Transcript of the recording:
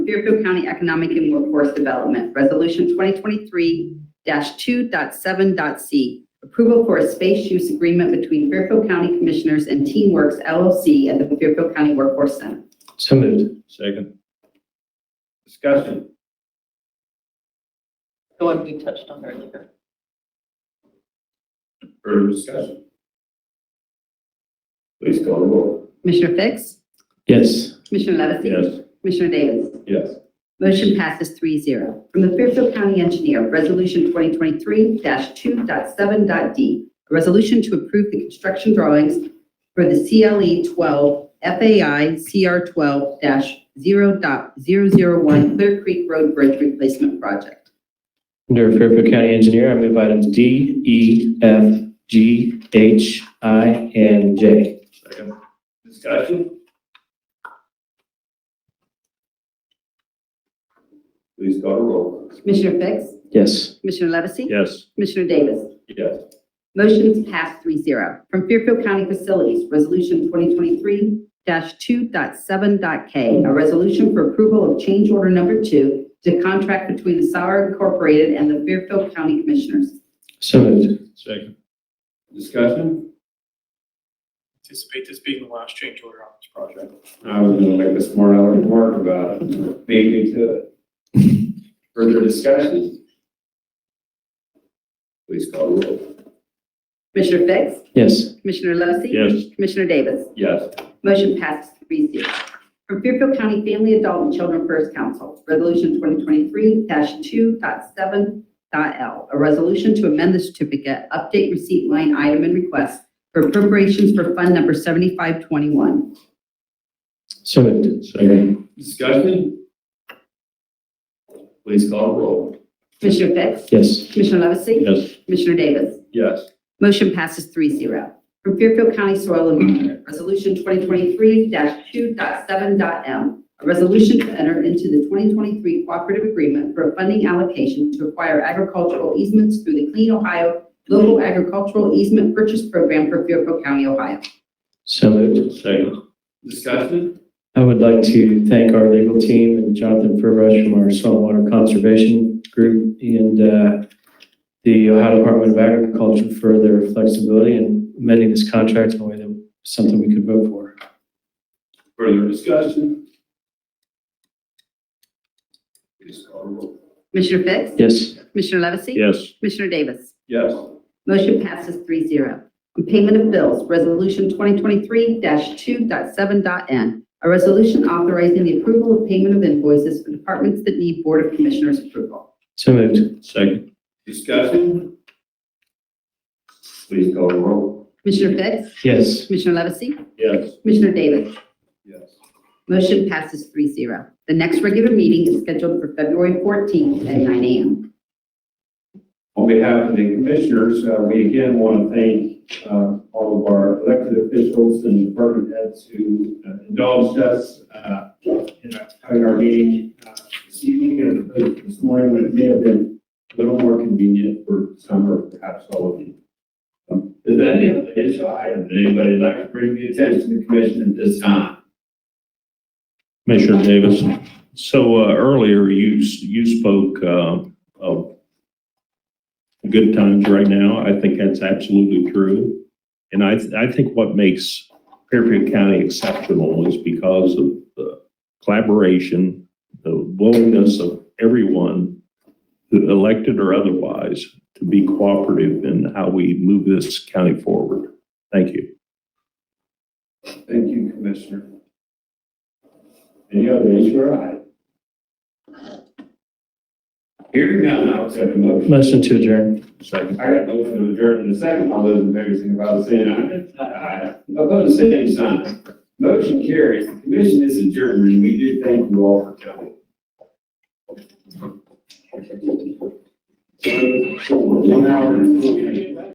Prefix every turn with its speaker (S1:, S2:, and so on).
S1: Fairfield County Economic and Workforce Development, Resolution 2023-2.7.c, approval for a space use agreement between Fairfield County Commissioners and TeamWorks LLC at the Fairfield County Workforce Center.
S2: So moved.
S3: Second. Discussion.
S4: The one we touched on earlier.
S3: Further discussion. Please call the roll.
S1: Commissioner Fix?
S2: Yes.
S1: Commissioner Levesey? Commissioner Davis?
S3: Yes.
S1: Motion passes 3-0 From the Fairfield County Engineer, Resolution 2023-2.7.d, a resolution to approve the construction drawings for the E CLE 12 FAI CR 12-0.001 Clear Creek Road Bridge Replacement Project.
S2: Under Fairfield County Engineer, I move items D, E, F, G, H, I, and J.
S3: Second. Discussion. Please call the roll.
S1: Commissioner Fix?
S2: Yes.
S1: Commissioner Levesey?
S3: Yes.
S1: Commissioner Davis?
S3: Yes.
S1: Motion's passed 3-0 From Fairfield County Facilities, Resolution 2023-2.7.k, a resolution for approval of change order number two to contract between the Sauer Incorporated and the Fairfield County Commissioners.
S2: So moved.
S3: Second. Discussion.
S5: anticipate this being the last change order on this project.
S3: I was gonna make a smart aleck remark about it. Beat me to it. Further discussion. Please call the roll.
S1: Commissioner Fix?
S2: Yes.
S1: Commissioner Levesey? Commissioner Davis?
S3: Yes.
S1: Motion passes three zero. From Fairfield County Family, Adult, and Children First Council, Resolution 2023-2.7.l, a resolution to amend the certificate, update receipt line item and request for appropriations for Fund Number 7521.
S2: So moved. Second.
S3: Discussion? Please call the roll.
S1: Commissioner Fix?
S2: Yes.
S1: Commissioner Levesey?
S3: Yes.
S1: Commissioner Davis?
S3: Yes.
S1: Motion passes three zero. From Fairfield County Soil and Water, Resolution 2023-2.7.m. A resolution to enter into the 2023 cooperative agreement for a funding allocation to acquire agricultural easements through the Clean Ohio Local Agricultural Easement Purchase Program for Fairfield County, Ohio.
S2: So moved.
S3: Second. Discussion?
S2: I would like to thank our legal team and Jonathan Furbush from our Saltwater Conservation Group and uh, the Ohio Department of Agriculture for their flexibility in amending this contract in a way that was something we could vote for.
S3: Further discussion? Please call the roll.
S1: Commissioner Fix?
S2: Yes.
S1: Commissioner Levesey?
S3: Yes.
S1: Commissioner Davis?
S3: Yes.
S1: Motion passes 3-0. On payment of bills, Resolution 2023-2.7.n, a resolution authorizing the approval of payment of invoices for departments that need Board of Commissioners approval.
S2: So moved.
S3: Second. Discussion? Please call the roll.
S1: Commissioner Fix?
S2: Yes.
S1: Commissioner Levesey?
S3: Yes.
S1: Commissioner Davis?
S3: Yes.
S1: Motion passes 3-0. The next regular meeting is scheduled for February 14th at nine a.m.
S3: On behalf of the commissioners, uh, we again want to thank uh, all of our elected officials and department heads who uh, indulged us uh, in having our meeting uh, this evening and this morning when it may have been a little more convenient for some or perhaps all of you. Um, Is there any other issue item that anybody would like to bring to the attention of the commission at this time?
S6: Commissioner Davis, so uh, earlier you, s- you spoke uh, of good times right now. I think that's absolutely true. And I, th- I think what makes Fairfield County exceptional is because of the collaboration, the willingness of everyone, who elected or otherwise, to be cooperative in how we move this county forward. Thank you.
S3: Thank you, Commissioner. Any other issue or item? Hearing none, I'll accept a motion.
S2: Motion to adjourn.
S3: I got a motion to adjourn in a second. All those in favor, signify by saying aye. Aye. Opposed, same sign. Motion carries. The commission is adjourned, and we do thank you all for coming. One hour and forty-eight.